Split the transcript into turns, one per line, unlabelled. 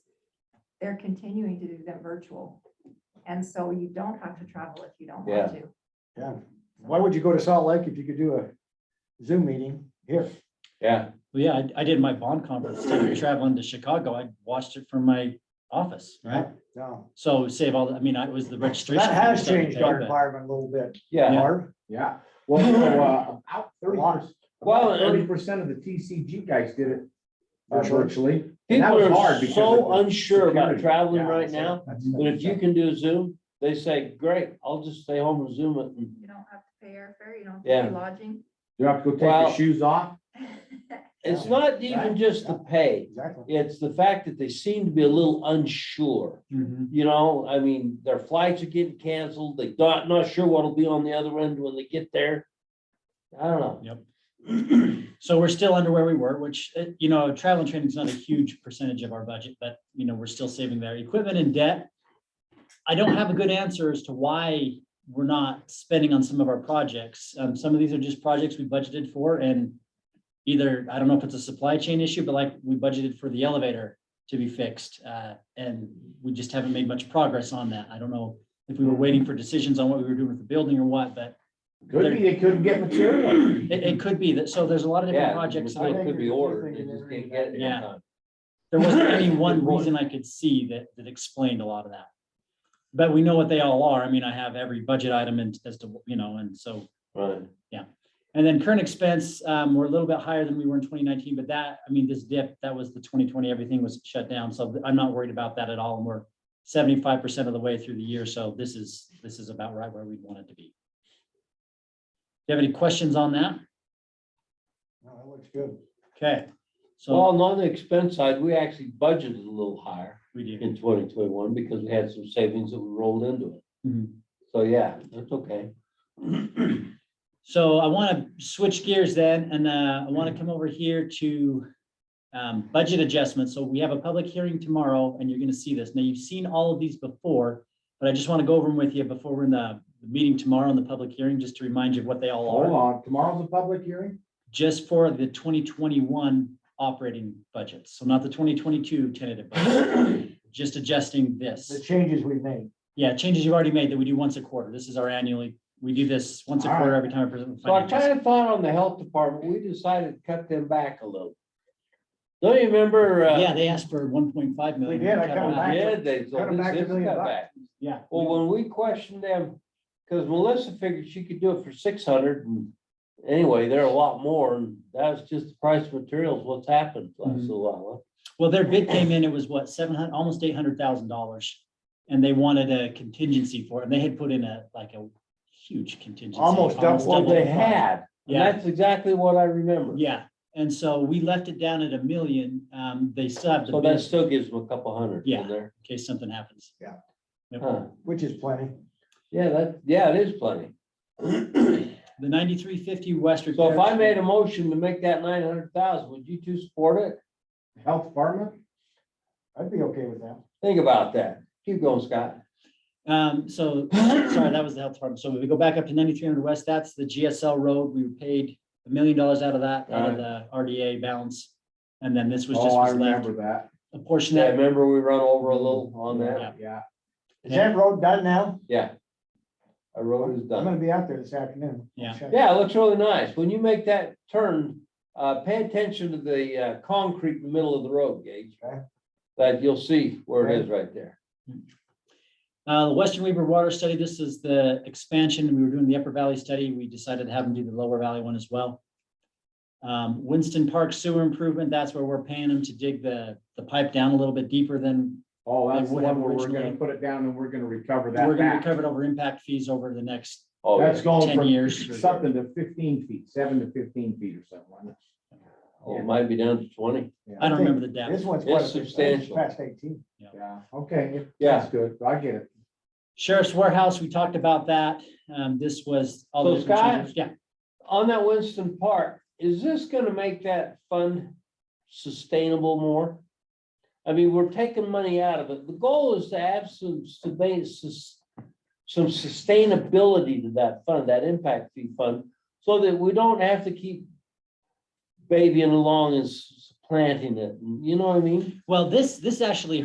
they're continuing to do them virtual. And so you don't have to travel if you don't
Yeah.
want to.
Yeah. Why would you go to Salt Lake if you could do a Zoom meeting here?
Yeah,
Well, yeah, I, I did my bond conference, instead of traveling to Chicago, I watched it from my office, right?
No,
So save all, the- I mean, I it was the registration.
that has
stuff
changed
today,
our
but-
environment a little bit,
yeah.
Barb.
Yeah, well, so, uh, about
A lot.
Well, and-
thirty percent of the TCG guys did it uh,
Virtually.
virtually. And that
People
was hard
are
because
so
of the
unsure about
security.
traveling
Yeah,
right
so
now,
that's-
but if you can do Zoom, they say, great, I'll just stay home and Zoom it.
You don't have to pay airfare, you don't have to pay
Yeah.
lodging.
You have to go take
Well-
your shoes off.
It's
Yeah.
not even just the pay,
Exactly.
it's the fact that they seem to be a little unsure.
Mhm.
You know, I mean, their flights are getting canceled. They not, not sure what'll be on the other end when they get there. I don't know.
So we're still under where we were, which, uh, you know, travel and training is not a huge percentage of our budget, but, you know, we're still saving there. Equipment and debt. I don't have a good answer as to why we're not spending on some of our projects. Um, some of these are just projects we budgeted for and either, I don't know if it's a supply chain issue, but like we budgeted for the elevator to be fixed, uh, and we just haven't made much progress on that. I don't know if we were waiting for decisions on what we were doing with the building or what, but
Could be, they couldn't get material.
it, it could be that, so there's a lot of different projects. that I-
It could be ordered. They just can't get it. in
Yeah.
time.
There wasn't any one
Good point.
reason I could see that, that explained a lot of that. But we know what they all are. I mean, I have every budget item and as to, you know, and so,
Right.
and then current expense, um, we're a little bit higher than we were in twenty nineteen, but that, I mean, this dip, that was the twenty twenty, everything was shut down. So I'm not worried about that at all. And we're seventy-five percent of the way through the year. So this is, this is about right where we'd want it to be. Do you have any questions on that?
No, that looks good.
Okay, so
Well, and on the expense side, we actually budgeted a little higher
we do.
in twenty twenty-one because we had some savings that we rolled into it.
Mhm.
So, yeah, that's okay.
So I want to switch gears then, and uh, I want to come over here to um, budget adjustments. So we have a public hearing tomorrow, and you're going to see this. Now, you've seen all of these before, but I just want to go over them with you before we're in the the meeting tomorrow in the public hearing, just to remind you of what they all
Hold
are,
on, tomorrow's a public hearing?
just for the 2021 operating budgets. So not the 2022 tentative, budget. just adjusting
The
this.
changes we've made.
Yeah, changes you've already made that we do once a quarter. This is our annually, we do this once a
All right.
quarter every time I present. the
So I
financials.
kind of thought on the health department, we decided to cut them back a little. Don't you remember? uh,
Yeah, they asked for one point five million.
They did, I cut
cut it
them
out.
back.
Yeah, they, so
Cut them
this
back a
is
million
cut
bucks.
back.
Yeah.
Well, when we questioned them, because Melissa figured she could do it for six hundred and anyway, they're a lot more and that was just the price of materials, what's happened last
Mhm.
little while.
Well, their bid came in, it was what, seven hundred, almost eight hundred thousand dollars. And they wanted a contingency for it. And they had put in a, like a huge contingency.
Almost double
That's what they
the-
had. And
Yeah.
that's exactly what I remember.
Yeah. And so we left it down at a million. Um, they still have the
So that
bid
still gives them a couple hundred
Yeah.
in there.
in case something happens.
Yeah.
Yep.
Huh.
Which is plenty.
Yeah, that, yeah, it is plenty.
The ninety-three fifty West.
So if I
repairs-
made a motion to make that nine hundred thousand, would you two support it?
Health department? Oh,
I'd be okay with that.
Think about that. Keep going, Scott.
Um, so, sorry, that was the health department. So we go back up to ninety-three hundred west, that's the GSL road. We paid a million dollars out of that, out of the RDA balance. And then this was just
Oh, I
was left,
remember that.
a portion
Yeah,
that,
remember we run over a little on that?
Yeah.
Yeah.
Is that road done now?
Yeah. Our road is
I'm
done.
gonna be out there this afternoon.
Yeah.
Check.
Yeah, it looks really nice. When you make that turn, uh, pay attention to the, uh, concrete in the middle of the road, Gage.
Okay.
That you'll see where it is right there.
uh, the Western Weaver Water Study, this is the expansion. We were doing the Upper Valley Study. We decided to have them do the Lower Valley one as well. Um, Winston Park Sewer Improvement, that's where we're paying them to dig the, the pipe down a little bit deeper than
Oh,
They
that's the
would have
one where we're
originally.
gonna put it down and we're gonna recover
we're
that
gonna
back.
recover it over impact fees over the next
Oh, yeah.
That's going
10
from
years.
something to fifteen feet, seven to fifteen feet or something. like that.
Oh, it might be down to twenty.
Yeah,
I don't
think
remember the depth.
This one's
It's
quite a bit.
substantial.
Past eighteen.
Yeah, okay,
Yeah.
that's good. I get it.
Sheriff's Warehouse, we talked about that. Um, this was. all the
So
different
Scott-
changes. Yeah,
On that Winston Park, is this gonna make that fund sustainable more? I mean, we're taking money out of it. The goal is to have some suba- sus- some sustainability to that fund, that impact fee fund, so that we don't have to keep babying along and s- planting it. You know what I mean?
well, this, this actually